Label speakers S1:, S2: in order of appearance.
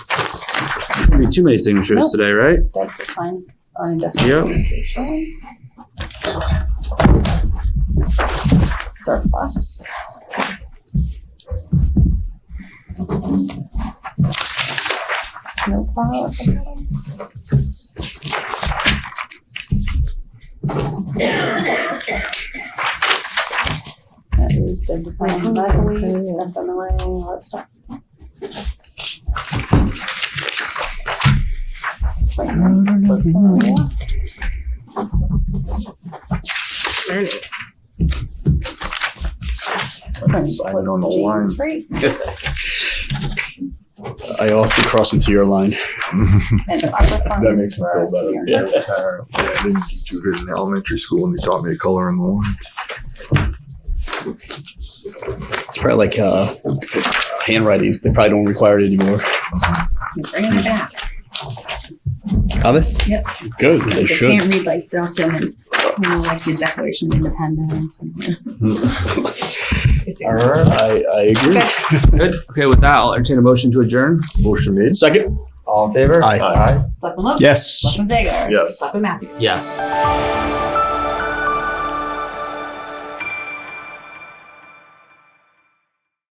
S1: be too many signatures today, right?
S2: Doug to sign on industrial
S1: Yep.
S2: appropriations. Surplus. Snowplow. I think. That is Doug to sign on FMLA, all that stuff. Like, slip them away.
S3: Sign it on the line.
S2: James Free.
S4: I often cross into your line.
S2: And ARPA
S4: That makes
S2: funds
S4: me
S2: for our
S4: feel
S2: senior.
S4: better.
S3: Yeah, I didn't do good in elementary school and they taught me to color in the line.
S4: It's probably like uh, handwriting. They probably don't require it anymore.
S5: Bring it back.
S4: Are they?
S5: Yep.
S4: Good. They
S5: They
S4: should.
S5: can't read like documents, you know, like the Declaration of Independence. and- It's
S4: All right. I, I agree.
S1: Good. Okay, with that, I'll entertain a motion to adjourn.
S3: Motion made.
S4: Second.
S1: All in favor?
S4: Aye.
S3: Aye.
S5: Slip and look.
S4: Yes.
S5: Slip and Zager.
S3: Yes.
S5: Slip and Matthews.
S1: Yes.